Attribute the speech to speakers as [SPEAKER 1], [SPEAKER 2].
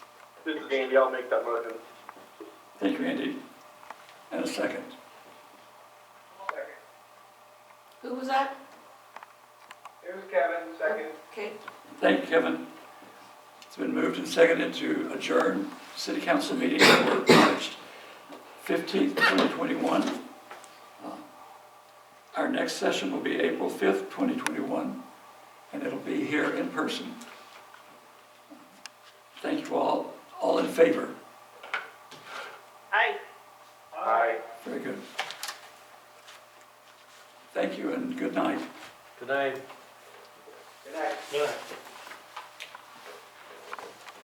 [SPEAKER 1] This is Andy, I'll make that motion.
[SPEAKER 2] Thank you, Andy. And a second.
[SPEAKER 3] Who was that?
[SPEAKER 1] It was Kevin,
[SPEAKER 3] Okay,
[SPEAKER 2] Thank you, Kevin. It's been moved and seconded to adjourn city council meeting for March fifteenth, twenty twenty-one. Uh, Our next session will be April fifth, twenty twenty-one, and it'll be here in person. Thank you all. All in favor?
[SPEAKER 4] Aye.
[SPEAKER 1] Aye.
[SPEAKER 2] Very good. Thank you and good night.
[SPEAKER 5] Good night.
[SPEAKER 1] Good night.
[SPEAKER 5] Good night.